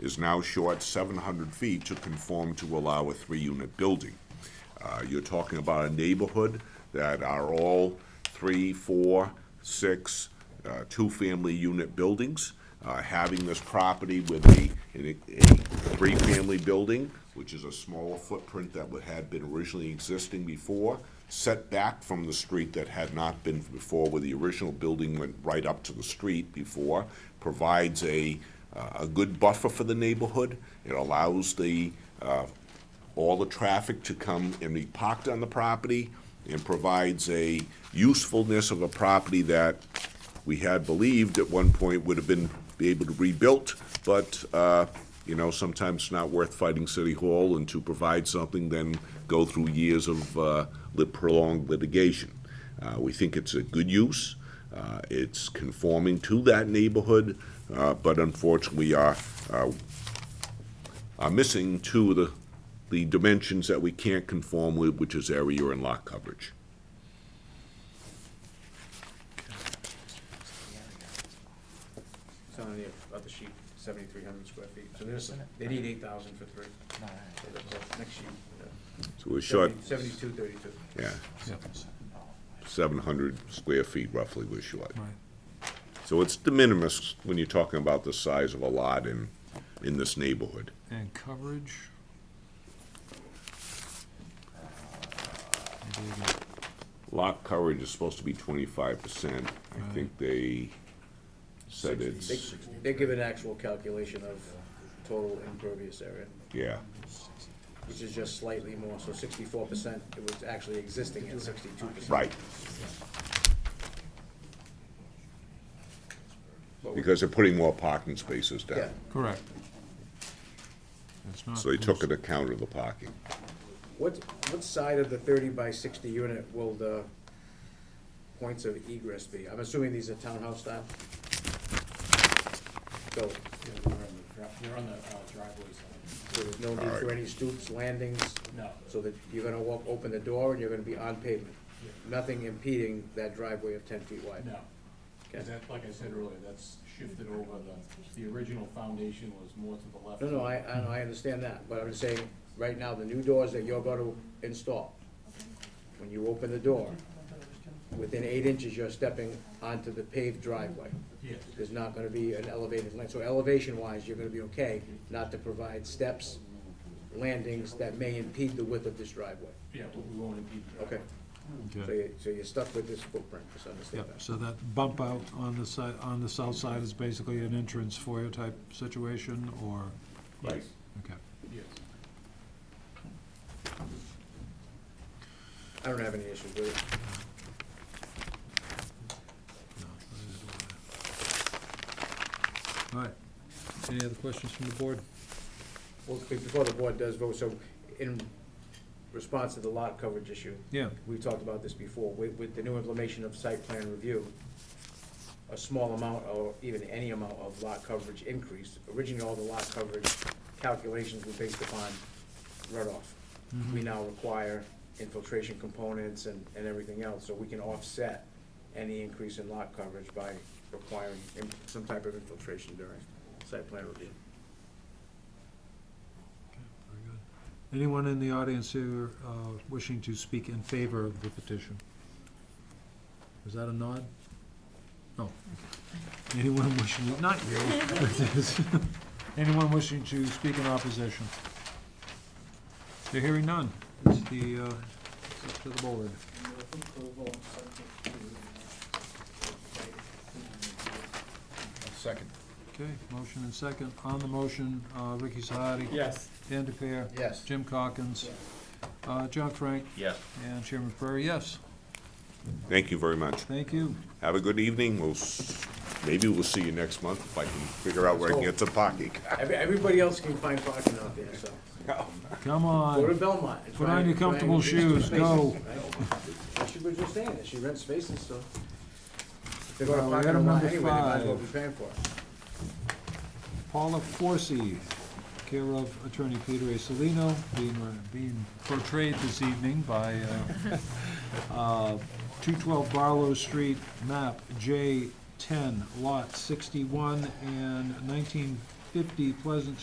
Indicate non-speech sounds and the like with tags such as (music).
is now short seven hundred feet to conform to allow a three-unit building. Uh, You're talking about a neighborhood that are all three, four, six, uh, two-family unit buildings. Uh, Having this property with a, a a three-family building, which is a smaller footprint that would- had been originally existing before, set back from the street that had not been before, where the original building went right up to the street before, provides a, uh, a good buffer for the neighborhood. It allows the uh, all the traffic to come and be parked on the property and provides a usefulness of a property that we had believed at one point would have been, be able to rebuilt, but, uh, you know, sometimes it's not worth fighting City Hall and to provide something then go through years of, uh, lit- prolonged litigation. Uh, we think it's a good use. Uh, it's conforming to that neighborhood, uh, but unfortunately, our, our are missing two of the, the dimensions that we can't conform with, which is area and lot coverage. It's on the other sheet, seventy-three hundred square feet, so there's, they need eight thousand for three. So that's the Next sheet. So we're short, Seventy-two thirty-two. yeah, seven hundred square feet roughly we're short. So it's de minimis when you're talking about the size of a lot in, in this neighborhood. And coverage? Maybe I can- Lot coverage is supposed to be twenty-five percent. I think they said They, it's, they give an actual calculation of total impervious area, yeah, which is just slightly more, so sixty-four percent, it was actually existing at sixty-two percent. right. Because they're putting more parking spaces down. Yeah, Correct. It's not So they took close. an account of the parking. what, what side of the thirty by sixty unit will the points of egress be? I'm assuming these are townhouse style? So, Yeah, they're on the dri- They're on the uh, driveway side. so there's no need for any stoops, landings, No. so that you're gonna walk, open the door, and you're gonna be on pavement. Nothing impeding that driveway of ten feet wide. No. Because that, like I said earlier, that's shifted over the, the original foundation was more to the left. No, no, I, I, know, I understand that, but I'm just saying, right now, the new doors that you're gonna install, when you open the door, within eight inches, you're stepping onto the paved driveway. Yes, There's not gonna be an elevated land, so elevation-wise, you're gonna be okay not to provide steps, landings that may impede the width of this driveway, yeah, but we won't impede the driveway. okay? So Okay. you, so you're stuck with this footprint, just understand Yep, that. so that bump out on the side, on the south side is basically an entrance foyer type situation, or? Yes, Okay. yes. I don't have any issues with it. No, that is All right. Any other questions from the board? Well, be- before the board does vote, so in response to the lot coverage issue, Yeah, we talked about this before, with, with the new implementation of site plan review, a small amount or even any amount of lot coverage increase, originally all the lot coverage calculations were based upon runoff. We now require infiltration components and, and everything else, so we can offset any increase in lot coverage by requiring im- some type of infiltration during site plan review. Okay, very good. Anyone in the audience here uh, wishing to speak in favor of the petition? Was that a nod? No. Anyone wishing, not you. (laughs) Anyone wishing to speak in opposition? They're hearing none. It's the, uh, it's up to the board. Second. Okay, motion and second. On the motion, uh, Ricky Sahadi. Yes. Dan DePere. Yes. Jim Calkins. Uh, John Frank. Yes. And Chairman Prairie, yes. Thank you very much. Thank you. Have a good evening. We'll, s- maybe we'll see you next month if I can figure out where I can get some parking. Every, everybody else can find parking out there, so, Come go to on. Belmont. and Put try on and- your try and comfortable reduce the shoes, go. spaces, right? She was just saying that, she rents spaces, so. If They're Well, gonna we park got in a a lot number anyway, they might as well be five. paying for it. Paula Forsy, care of Attorney Peter A. Salino, being, uh, being portrayed this evening by, uh, (laughs) uh, two twelve Barlow Street, map J ten, lot sixty-one and nineteen fifty Pleasant